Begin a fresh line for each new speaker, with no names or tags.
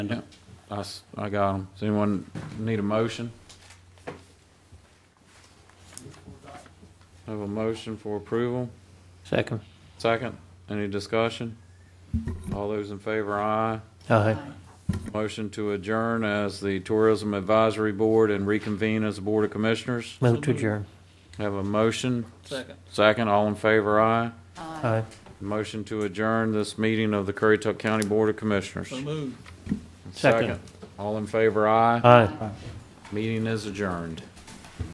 Yeah, uh, I, s- I got them. Does anyone need a motion? Have a motion for approval?
Second.
Second, any discussion? All those in favor, aye.
Aye.
Motion to adjourn as the Tourism Advisory Board and reconvene as the Board of Commissioners.
Move to adjourn.
Have a motion? Second. Second, all in favor, aye.
Aye.
Motion to adjourn this meeting of the Currituck County Board of Commissioners.
Second.
All in favor, aye.
Aye.
Meeting is adjourned.